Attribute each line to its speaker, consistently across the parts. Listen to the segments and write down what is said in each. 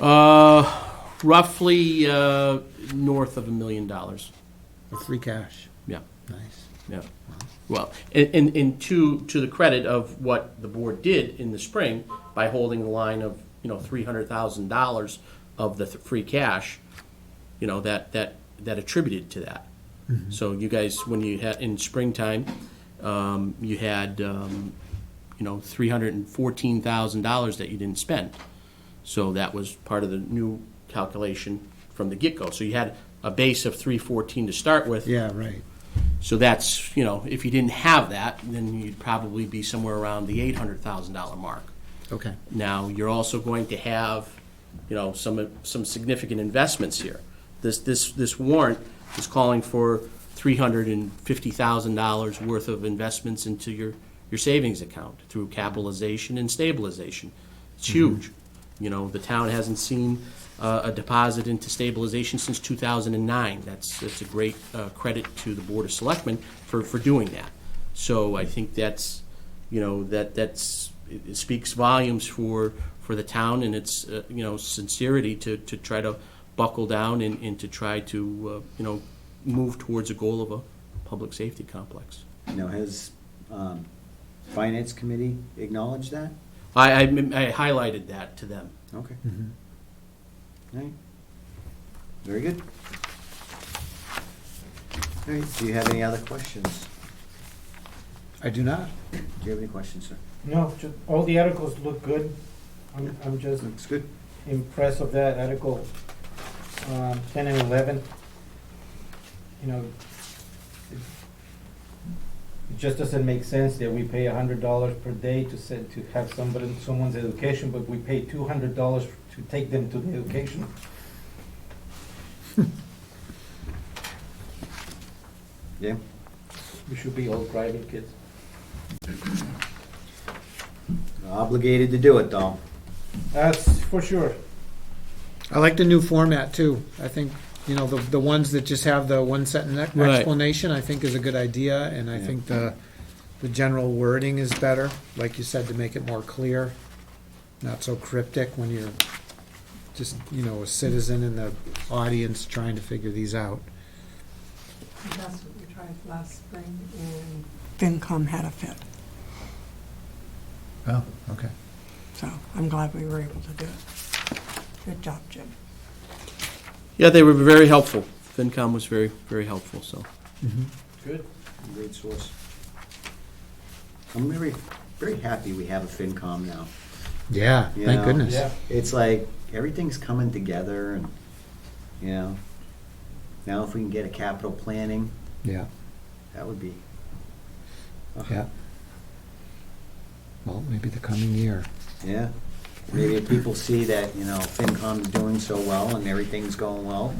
Speaker 1: Uh, roughly uh, north of a million dollars.
Speaker 2: With free cash.
Speaker 1: Yeah,
Speaker 2: Nice.
Speaker 1: yeah. Well, and, and, and to, to the credit of what the board did in the spring by holding the line of, you know, three hundred thousand dollars of the th- free cash, you know, that, that, that attributed to that. So you guys, when you had, in springtime, um, you had, um, you know, three hundred and fourteen thousand dollars that you didn't spend. So that was part of the new calculation from the get-go. So you had a base of three fourteen to start with.
Speaker 2: Yeah, right.
Speaker 1: So that's, you know, if you didn't have that, then you'd probably be somewhere around the eight hundred thousand dollar mark.
Speaker 2: Okay.
Speaker 1: Now, you're also going to have, you know, some, some significant investments here. This, this, this warrant is calling for three hundred and fifty thousand dollars worth of investments into your, your savings account through capitalization and stabilization. It's huge. You know, the town hasn't seen uh, a deposit into stabilization since two thousand and nine. That's, that's a great uh, credit to the Board of Selectmen for, for doing that. So I think that's, you know, that, that's, it it speaks volumes for, for the town and its, uh, you know, sincerity to, to try to buckle down and, and to try to, uh, you know, move towards a goal of a public safety complex.
Speaker 3: Now, has um, Finance Committee acknowledged that?
Speaker 1: I, I, I highlighted that to them.
Speaker 3: Okay.
Speaker 2: Mm-hmm.
Speaker 3: All right. Very good. All right, do you have any other questions?
Speaker 2: I do not.
Speaker 3: Do you have any questions, sir?
Speaker 4: No, ju- all the articles look good. I'm, I'm just
Speaker 3: Looks good.
Speaker 4: impressed of that article, um, ten and eleven. You know, it it just doesn't make sense that we pay a hundred dollars per day to send, to have somebody, someone's education, but we pay two hundred dollars to take them to the education.
Speaker 3: Yeah?
Speaker 4: We should be all private kids.
Speaker 3: Obligated to do it, though.
Speaker 4: That's for sure.
Speaker 2: I like the new format too. I think, you know, the, the ones that just have the one sentence ex-
Speaker 1: Right.
Speaker 2: explanation, I think is a good idea. And I
Speaker 3: Yeah.
Speaker 2: think the, the general wording is better, like you said, to make it more clear. Not so cryptic when you're just, you know, a citizen in the audience trying to figure these out.
Speaker 5: That's what we tried last spring and. FinCom had a fit,
Speaker 2: Oh, okay.
Speaker 5: so I'm glad we were able to do it. Good job, Jim.
Speaker 1: Yeah, they were very helpful. FinCom was very, very helpful, so.
Speaker 4: Good.
Speaker 3: Great source. I'm very, very happy we have a FinCom now.
Speaker 2: Yeah,
Speaker 3: You
Speaker 2: thank
Speaker 3: know,
Speaker 2: goodness.
Speaker 4: Yeah.
Speaker 3: It's like, everything's coming together and, you know, now if we can get a capital planning,
Speaker 2: Yeah,
Speaker 3: that would be.
Speaker 2: yeah. Well, maybe the coming year.
Speaker 3: Yeah, maybe if people see that, you know, FinCom's doing so well and everything's going well,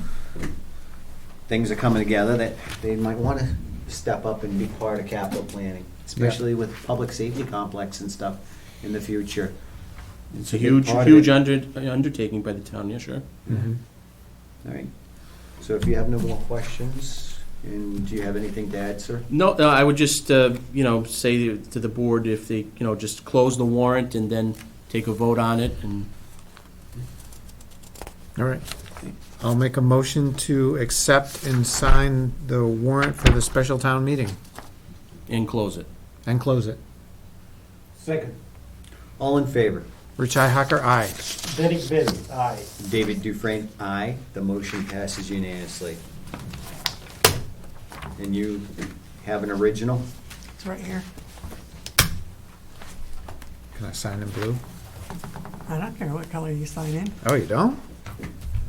Speaker 3: things are coming together, that they might want to step up and be part of capital planning, especially with public safety complex and stuff in the future.
Speaker 1: It's a
Speaker 3: big
Speaker 1: huge,
Speaker 3: part of
Speaker 1: huge
Speaker 3: it.
Speaker 1: under, undertaking by the town, yeah, sure.
Speaker 2: Mm-hmm.
Speaker 3: All right, so if you have no more questions, and do you have anything to add, sir?
Speaker 1: No, no, I would just, uh, you know, say to the board if they, you know, just close the warrant and then take a vote on it and
Speaker 2: All right. I'll make a motion to accept and sign the warrant for the special town meeting
Speaker 1: and close it.
Speaker 2: and close it.
Speaker 4: Second,
Speaker 3: All in favor?
Speaker 2: Rich Hacker, aye.
Speaker 4: Derek Bell, aye.
Speaker 3: David Dufresne, aye. The motion passes unanimously. And you have an original?
Speaker 5: It's right here.
Speaker 2: Can I sign in blue?
Speaker 5: I don't care what color you sign in.
Speaker 2: Oh, you don't?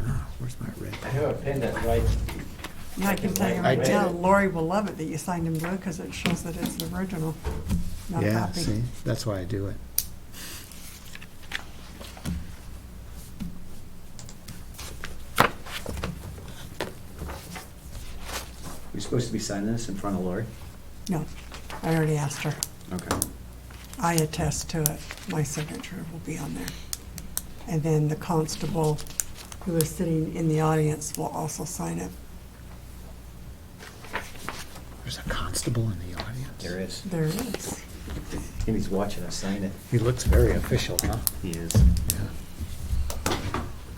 Speaker 2: Oh, Where's my red?
Speaker 4: I have a pen that's right.
Speaker 5: Yeah, I can tell you
Speaker 4: I
Speaker 5: right
Speaker 4: read
Speaker 5: now,
Speaker 4: it.
Speaker 5: Lori will love it that you signed in blue because it shows that it's the original, not a
Speaker 2: Yeah,
Speaker 5: copy.
Speaker 2: see, that's why I do it.
Speaker 3: We're supposed to be signing this in front of Lori?
Speaker 5: No, I already asked her.
Speaker 3: Okay.
Speaker 5: I attest to it. My signature will be on there. And then the constable who is sitting in the audience will also sign it.
Speaker 2: There's a constable in the audience.
Speaker 3: There is.
Speaker 5: There it is.
Speaker 3: And he's watching us sign it.
Speaker 2: He looks very official, huh?
Speaker 3: He is.